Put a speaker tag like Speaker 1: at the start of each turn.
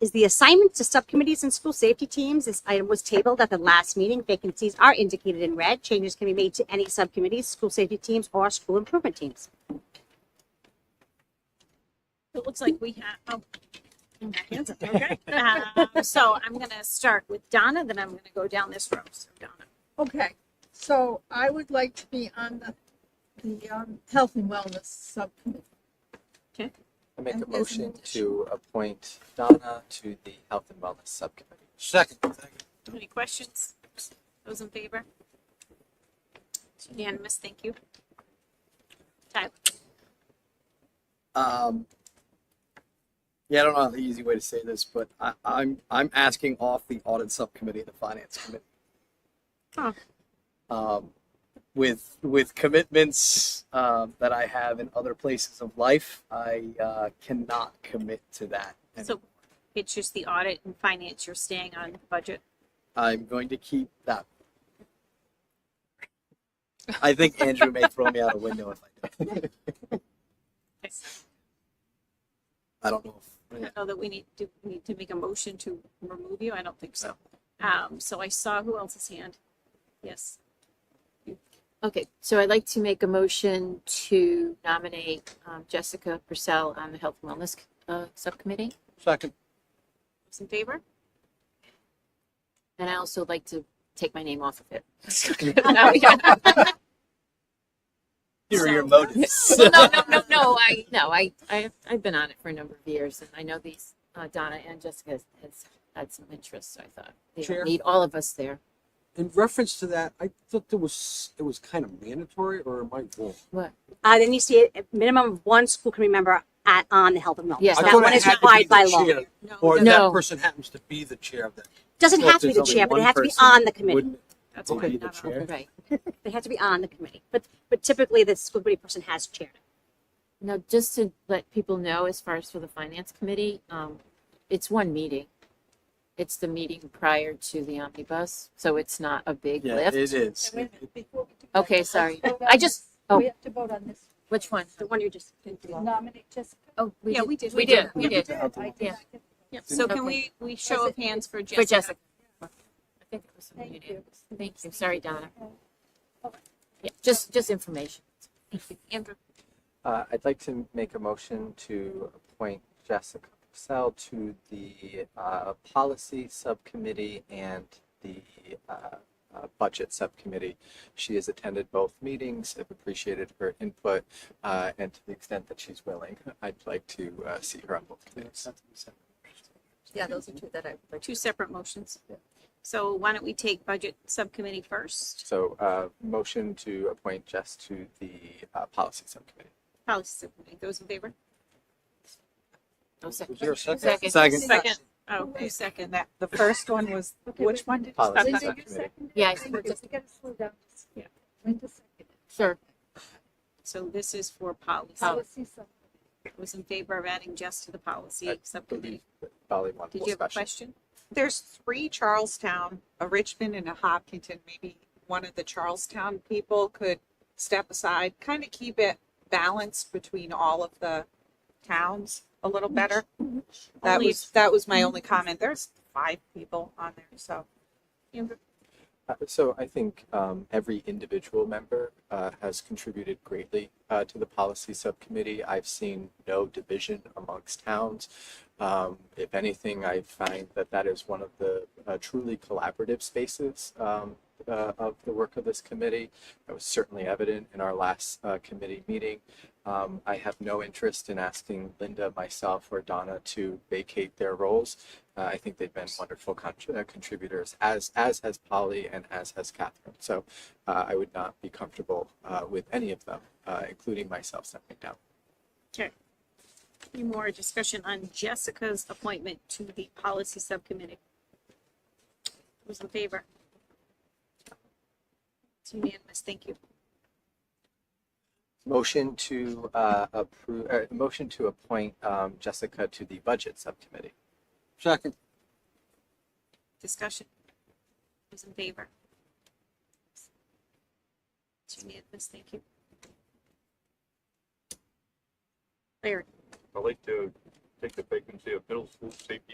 Speaker 1: is the assignment to subcommittees and school safety teams. This item was tabled at the last meeting. Vacancies are indicated in red. Changes can be made to any subcommittees, school safety teams, or school improvement teams.
Speaker 2: It looks like we have, oh. hands up, okay. Um, So I'm gonna start with Donna, then I'm gonna go down this row, so Donna.
Speaker 3: Okay, so I would like to be on the, the, um, health and wellness subcommittee.
Speaker 4: I make a
Speaker 3: And there's an
Speaker 4: motion
Speaker 3: additional.
Speaker 4: to appoint Donna to the Health and Wellness Subcommittee.
Speaker 5: Second.
Speaker 2: Any questions? Those in favor? It's Unanimous, thank you. Tyler,
Speaker 5: Um, yeah, I don't know the easy way to say this, but I, I'm I'm asking off the audit subcommittee and the finance committee.
Speaker 2: Huh.
Speaker 5: Um, with with commitments um, that I have in other places of life, I uh, cannot commit to that. And
Speaker 2: so it's just the audit and finance, you're staying on budget.
Speaker 5: I'm going to keep that. I think Andrew may throw me out a window if I do.
Speaker 2: I
Speaker 5: I don't know. If, yeah.
Speaker 2: don't know that we need, do we need to make a motion to remove you? I don't think so. Um, so I saw who else's hand. Yes,
Speaker 6: Okay, so I'd like to make a motion to nominate um, Jessica Purcell on the Health and Wellness uh, Subcommittee.
Speaker 5: Second.
Speaker 2: those in favor?
Speaker 6: And I also like to take my name off of it.
Speaker 5: Here are your
Speaker 6: So-
Speaker 5: motives.
Speaker 6: Well, no, no, no, no, I, no, I, I, I've been on it for a number of years and I know these, uh, Donna and Jessica has- has had some interest, so I thought they don't
Speaker 7: Chair?
Speaker 6: need all of us there.
Speaker 7: In reference to that, I thought there was it was kind of mandatory, or am I wrong?
Speaker 6: What?
Speaker 1: Uh, then you see a minimum of one school committee member at, on the health and wellness.
Speaker 6: Yes.
Speaker 7: I
Speaker 1: That
Speaker 7: thought
Speaker 1: one
Speaker 7: it
Speaker 1: is
Speaker 7: had to be
Speaker 1: required
Speaker 7: the
Speaker 1: by law.
Speaker 7: chair,
Speaker 2: No.
Speaker 7: Or
Speaker 2: that's-
Speaker 6: No.
Speaker 7: that person happens to be the chair of that.
Speaker 1: Doesn't
Speaker 5: Well,
Speaker 1: have to be
Speaker 5: there's
Speaker 1: the
Speaker 5: only
Speaker 1: chair, but it
Speaker 5: one
Speaker 1: has to be
Speaker 5: person.
Speaker 1: on the committee.
Speaker 5: Wouldn't-
Speaker 2: That's
Speaker 7: Would
Speaker 2: fine,
Speaker 7: be the
Speaker 2: not on.
Speaker 7: chair.
Speaker 6: Right.
Speaker 1: They have to be on the committee, but, but typically the school committee person has chaired. it.
Speaker 6: Now, just to let people know, as far as for the finance committee, um, it's one meeting. It's the meeting prior to the omnibus, so it's not a big
Speaker 5: Yeah,
Speaker 6: lift.
Speaker 5: it is.
Speaker 3: Wait a minute, before we do that,
Speaker 6: Okay, sorry.
Speaker 3: let's vote on
Speaker 6: I just,
Speaker 3: this.
Speaker 6: oh.
Speaker 3: We have to vote on this.
Speaker 6: which one?
Speaker 1: The one you just.
Speaker 3: Nominate Jessica.
Speaker 6: Oh,
Speaker 2: Yeah, we did.
Speaker 6: We did, we
Speaker 3: You
Speaker 6: did.
Speaker 3: did, I did
Speaker 6: Yeah.
Speaker 3: not get-
Speaker 2: Yep, so can we,
Speaker 6: Okay.
Speaker 2: we show of hands for Jessica?
Speaker 6: For Jessica. I think it was
Speaker 3: Thank
Speaker 6: muted.
Speaker 3: you.
Speaker 6: Thank you, sorry, Donna. Yeah, just, just information.
Speaker 2: Andrew,
Speaker 4: Uh, I'd like to make a motion to appoint Jessica Purcell to the uh, Policy Subcommittee and the uh, uh, Budget Subcommittee. She has attended both meetings, have appreciated her input, uh, and to the extent that she's willing, I'd like to uh, see her on both committees.
Speaker 6: Yeah, those are two that I would like
Speaker 2: two separate motions.
Speaker 4: Yeah.
Speaker 2: So why don't we take budget subcommittee first,
Speaker 4: So, uh, motion to appoint Jess to the uh, Policy Subcommittee.
Speaker 2: policy subcommittee, those in favor?
Speaker 6: to.
Speaker 5: Was there a
Speaker 6: Second.
Speaker 5: Second.
Speaker 2: Second. Oh, who second that?
Speaker 8: The first one was,
Speaker 3: Okay,
Speaker 8: which
Speaker 3: wait.
Speaker 8: one did you
Speaker 4: Policy
Speaker 3: Linda, you
Speaker 4: Subcommittee.
Speaker 3: seconded?
Speaker 6: Yeah, I
Speaker 3: Linda,
Speaker 6: seconded.
Speaker 3: We gotta slow down.
Speaker 2: Yeah.
Speaker 3: Linda seconded.
Speaker 6: Sure.
Speaker 2: So this is for policy,
Speaker 3: Policy sub.
Speaker 2: who's in favor of adding Jess to the policy
Speaker 4: I
Speaker 2: subcommittee?
Speaker 4: Bali one.
Speaker 2: Did
Speaker 4: more
Speaker 2: you have a
Speaker 4: special.
Speaker 2: question?
Speaker 8: there's three Charlestown, a Richmond and a Hopkinton, maybe one of the Charlestown people could step aside, kind of keep it balanced between all of the towns a little better. That
Speaker 2: Only-
Speaker 8: was, that was my only comment. There's five people on there, so.
Speaker 2: Amber,
Speaker 4: Uh, So I think um, every individual member uh, has contributed greatly uh, to the policy subcommittee. I've seen no division amongst towns. Um, if anything, I find that that is one of the uh, truly collaborative spaces um, uh, of the work of this committee. That was certainly evident in our last uh, committee meeting. Um, I have no interest in asking Linda, myself, or Donna to vacate their roles. Uh, I think they've been wonderful con- uh, contributors, as as has Polly and as has Catherine. So uh, I would not be comfortable uh, with any of them, uh, including myself stepping down.
Speaker 2: Any more discussion on Jessica's appointment to the policy subcommittee? Who's in favor? It's unanimous, thank you.
Speaker 4: Motion to uh, approve. Uh, motion to appoint um, Jessica to the budget subcommittee.
Speaker 7: Second.
Speaker 2: Discussion. Those in favor? It's unanimous, thank you. Larry,
Speaker 9: I'd like to take the vacancy of middle school safety